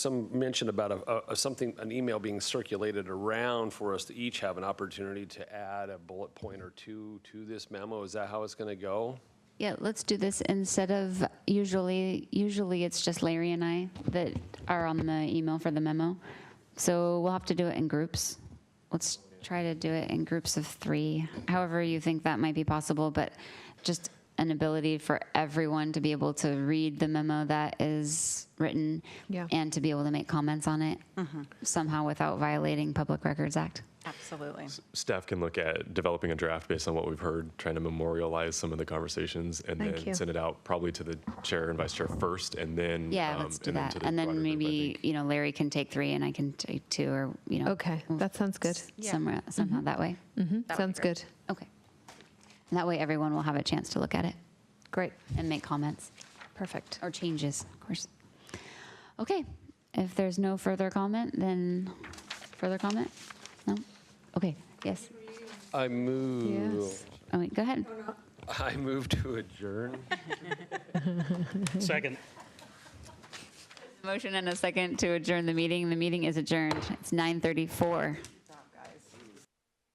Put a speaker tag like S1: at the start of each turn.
S1: some mention about a, a, something, an email being circulated around for us to each have an opportunity to add a bullet point or two to this memo. Is that how it's going to go?
S2: Yeah, let's do this instead of, usually, usually it's just Larry and I that are on the email for the memo. So we'll have to do it in groups. Let's try to do it in groups of three, however you think that might be possible, but just an ability for everyone to be able to read the memo that is written
S3: Yeah.
S2: and to be able to make comments on it somehow without violating Public Records Act.
S4: Absolutely.
S5: Staff can look at developing a draft based on what we've heard, trying to memorialize some of the conversations, and
S3: Thank
S5: then
S3: you.
S5: send it out probably to the chair and vice chair first, and then
S2: Yeah,
S5: um,
S2: let's do
S5: and then
S2: that.
S5: to the
S2: And
S5: broader
S2: then
S5: group, I
S2: maybe,
S5: think.
S2: you know, Larry can take three and I can take two or, you know.
S3: Okay,
S2: we'll
S3: that sounds good. Mm-hmm.
S2: s- Somewhere, somehow that way.
S4: That would be
S3: Sounds
S4: great.
S3: good.
S2: Okay. And that way everyone will have a chance to look at it
S3: Great.
S2: and make comments
S3: Perfect.
S2: or changes, of course. Okay, if there's no further comment, then further comment? No? Okay, yes.
S1: I move.
S3: Yes.
S2: Oh, wait, go ahead.
S1: I move to adjourn.
S6: Second.
S2: Motion and a second to adjourn the meeting. The meeting is adjourned. It's 9:34.